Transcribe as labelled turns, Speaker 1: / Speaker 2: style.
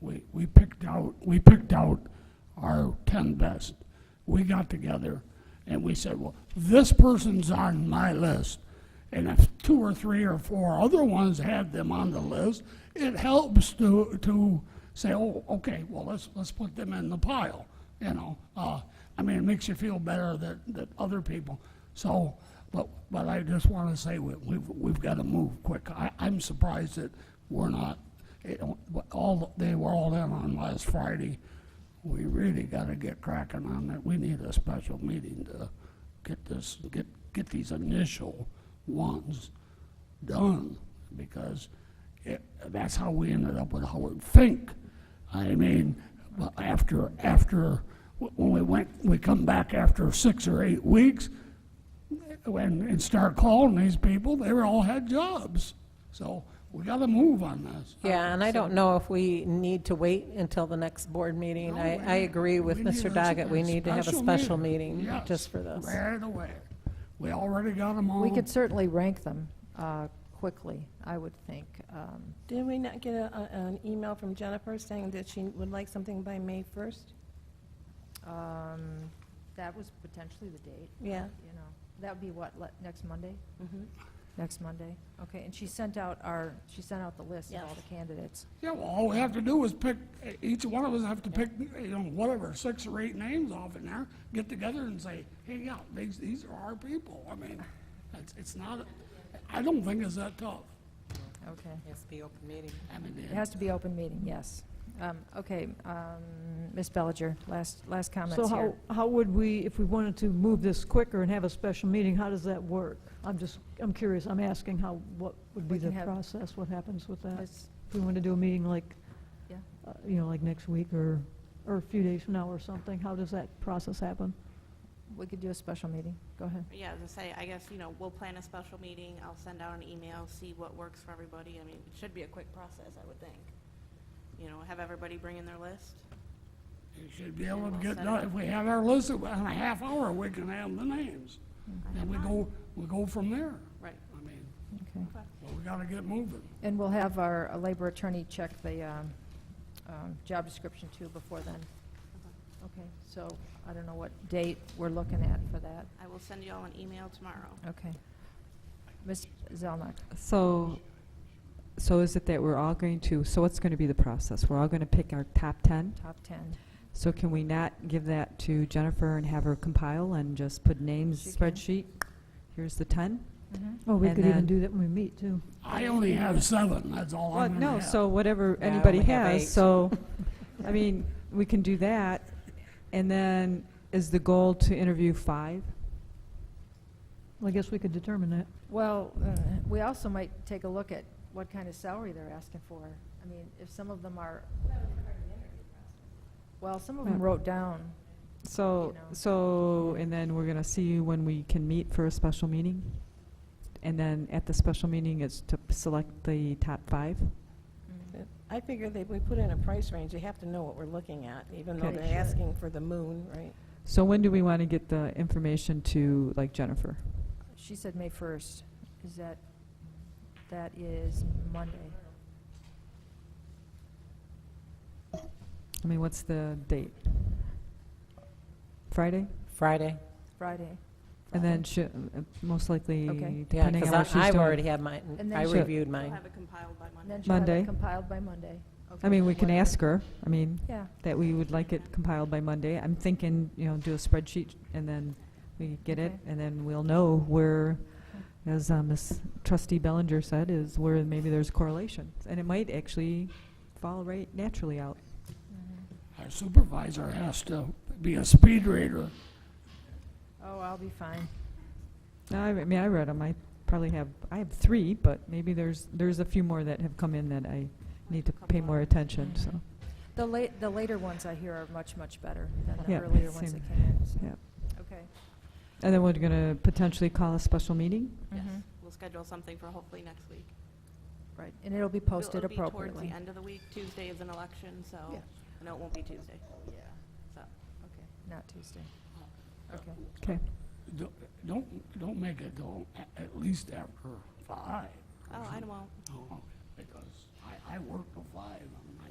Speaker 1: we, we picked out, we picked out our ten best. We got together and we said, well, this person's on my list. And if two or three or four other ones had them on the list, it helps to, to say, oh, okay, well, let's, let's put them in the pile, you know? Uh, I mean, it makes you feel better that, that other people, so, but, but I just wanna say, we, we've, we've gotta move quick. I, I'm surprised that we're not, it, all, they were all in on last Friday. We really gotta get cracking on that. We need a special meeting to get this, get, get these initial ones done, because it, that's how we ended up with Howard Fink. I mean, but after, after, when we went, we come back after six or eight weeks, and, and start calling these people, they were all had jobs. So we gotta move on this.
Speaker 2: Yeah, and I don't know if we need to wait until the next board meeting. I, I agree with
Speaker 1: We need
Speaker 2: Mr.
Speaker 1: a-
Speaker 2: Doggett, we need to have a special meeting
Speaker 1: Yes,
Speaker 2: just for this.
Speaker 1: Right away. We already got them all.
Speaker 3: We
Speaker 4: Um,
Speaker 3: could certainly rank them uh, quickly, I would think. Um,
Speaker 4: Did we not get a, a- an email from Jennifer saying that she would like something by May 1st?
Speaker 3: um, That was potentially the date,
Speaker 4: Yeah. Mm-hmm.
Speaker 3: you know. That would be what, le- next Monday? Next Monday? Okay, and she sent out our, she sent out the list of all
Speaker 4: Yes.
Speaker 3: the candidates.
Speaker 1: Yeah, well, all we have to do is pick, each one of us have to pick, you know, whatever, six or eight names off in there, get together and say, hey, yeah, these, these are our people. I mean, it's, it's not, I don't think it's that tough.
Speaker 3: Okay.
Speaker 2: Yes, be open meeting.
Speaker 1: I mean,
Speaker 3: It has to be open meeting, yes. Um, Okay, um, Ms. Bellinger, last, last
Speaker 5: So
Speaker 3: comments
Speaker 5: how,
Speaker 3: here.
Speaker 5: how would we, if we wanted to move this quicker and have a special meeting, how does that work? I'm just, I'm curious, I'm asking how, what would be
Speaker 3: We can
Speaker 5: the
Speaker 3: have-
Speaker 5: process, what happens with that? If
Speaker 3: Let's-
Speaker 5: we want to do a meeting like,
Speaker 3: Yeah.
Speaker 5: uh, you know, like next week or, or a few days from now or something, how does that process happen?
Speaker 3: We could do a special meeting, go ahead.
Speaker 6: Yeah, as I say, I guess, you know, we'll plan a special meeting, I'll send out an email, see what works for everybody. I mean, it should be a quick process, I would think. You know, have everybody bring in their list.
Speaker 1: We should be able to get, done. if we have our list in a half hour, we can have the names. And we go, we go from there.
Speaker 6: Right.
Speaker 1: I mean,
Speaker 3: Okay.
Speaker 1: well, we gotta get moving.
Speaker 3: And we'll have our uh, labor attorney check the um, um, job description too before then. Okay, so I don't know what date we're looking at for that.
Speaker 6: I will send you all an email tomorrow.
Speaker 3: Okay. Ms. Zelnok,
Speaker 7: So, so is it that we're all going to, so what's going to be the process? We're all going to pick our top 10?
Speaker 3: top 10.
Speaker 7: So can we not give that to Jennifer and have her compile and just put names,
Speaker 3: She can.
Speaker 7: spreadsheet? Here's the 10?
Speaker 5: Well, we
Speaker 7: And
Speaker 5: could even
Speaker 7: then-
Speaker 5: do that when we meet, too.
Speaker 1: I only have seven, that's all
Speaker 7: Well,
Speaker 1: I'm gonna have.
Speaker 7: no, so whatever
Speaker 2: Yeah, I
Speaker 7: anybody
Speaker 2: only have eight.
Speaker 7: has, so, I mean, we can do that. And then, is the goal to interview five?
Speaker 5: Well, I guess we could determine that.
Speaker 3: Well, uh, we also might take a look at what kind of salary they're asking for. I mean, if some of them are... Well, some of them
Speaker 7: Yeah.
Speaker 3: wrote down,
Speaker 7: So,
Speaker 3: You know.
Speaker 7: so, and then we're going to see you when we can meet for a special meeting? And then at the special meeting, it's to select the top five?
Speaker 4: I figure that we put in a price range, they have to know what we're looking at, even though
Speaker 7: Okay.
Speaker 4: they're asking for the moon, right?
Speaker 7: So when do we want to get the information to, like Jennifer?
Speaker 3: she said May 1st. Is that, that is Monday.
Speaker 7: I mean, what's the date? Friday?
Speaker 2: Friday?
Speaker 3: Friday.
Speaker 7: And then she, uh, most likely,
Speaker 3: Okay.
Speaker 2: Yeah,
Speaker 7: depending on what
Speaker 2: because
Speaker 7: she's doing.
Speaker 2: I've already had mine,
Speaker 3: And then
Speaker 2: I
Speaker 3: she-
Speaker 2: reviewed
Speaker 6: I'll
Speaker 2: mine.
Speaker 6: have it compiled by
Speaker 3: And then
Speaker 6: Monday.
Speaker 3: she'll have
Speaker 7: Monday.
Speaker 3: it compiled by Monday.
Speaker 7: I mean, we can ask her, I mean,
Speaker 3: Yeah,
Speaker 7: that we would like it compiled by Monday. I'm thinking, you know, do a spreadsheet, and then we get it,
Speaker 3: Okay.
Speaker 7: and then we'll know where, as uh, Ms. Trustee Bellinger said, is where maybe there's correlations. And it might actually fall right naturally out.
Speaker 3: Mm-hmm.
Speaker 1: Our supervisor has to be a speed reader.
Speaker 3: oh, I'll be fine.
Speaker 7: No, I re- I mean, I read them. I probably have, I have three, but maybe there's, there's a few more that have come in that I need to pay more attention, so.
Speaker 3: The late, the later ones I hear are much, much better than the
Speaker 7: Yeah,
Speaker 3: earlier ones
Speaker 7: same.
Speaker 3: that came in, so,
Speaker 7: Yeah.
Speaker 3: okay.
Speaker 7: And then we're going to potentially call a special meeting?
Speaker 6: Yes,
Speaker 3: Mhm.
Speaker 6: we'll schedule something for hopefully next week.
Speaker 3: Right, and it'll be
Speaker 6: It'll-
Speaker 3: posted
Speaker 6: It'll be towards
Speaker 3: appropriately.
Speaker 6: the end of the week, Tuesday is an election, so,
Speaker 3: Yeah.
Speaker 6: no, it won't be Tuesday. So,
Speaker 3: Okay, not Tuesday. Okay,
Speaker 7: Okay.
Speaker 1: Do- Don't, don't make it go a- at least after five.
Speaker 6: oh, I won't.
Speaker 1: No, Because I, I work till five on